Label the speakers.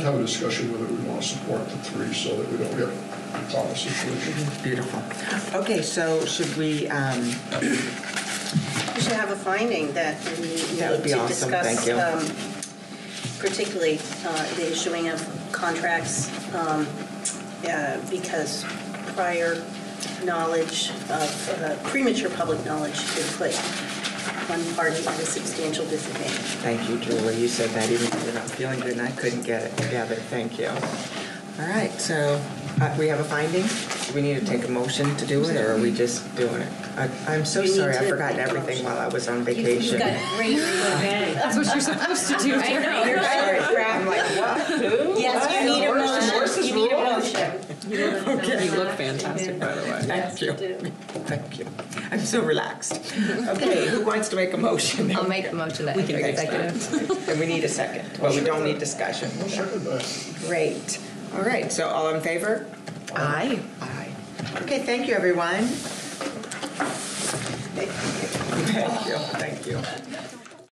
Speaker 1: have a discussion whether we want to support the three so that we don't get a Thomas situation.
Speaker 2: Beautiful. Okay, so should we, um,
Speaker 3: We should have a finding that we
Speaker 2: That would
Speaker 3: need
Speaker 2: be
Speaker 3: to
Speaker 2: awesome, thank
Speaker 3: discuss,
Speaker 2: you.
Speaker 3: um, particularly uh, the issuing of contracts, um, uh, because prior knowledge of, uh, premature public knowledge could put one party at a substantial disadvantage.
Speaker 2: thank you, Julie, you said that even though you're not feeling good and I couldn't get it together, thank you. All right, so uh, we have a finding? Do we need to take a motion to do it, or are we just doing it? I- I'm so
Speaker 3: You need
Speaker 2: sorry, I
Speaker 3: to
Speaker 2: forgot
Speaker 3: make a
Speaker 2: everything
Speaker 3: motion.
Speaker 2: while I was on
Speaker 3: You- You've
Speaker 2: vacation.
Speaker 3: got great reading.
Speaker 4: That's what you're supposed to do.
Speaker 2: You're right, I'm like, what?
Speaker 3: Yes, you need a motion. You need a motion.
Speaker 4: You look fantastic, by the way.
Speaker 2: Thank you. Thank you. I'm so relaxed. Okay, who wants to make a motion?
Speaker 5: I'll make a motion that
Speaker 4: We can fix that.
Speaker 5: executive.
Speaker 2: And we need a second, but we don't need discussion.
Speaker 1: I'll second that.
Speaker 2: Great. All right, so all in favor? Aye. Aye. Okay, thank you, everyone. Thank you, thank you.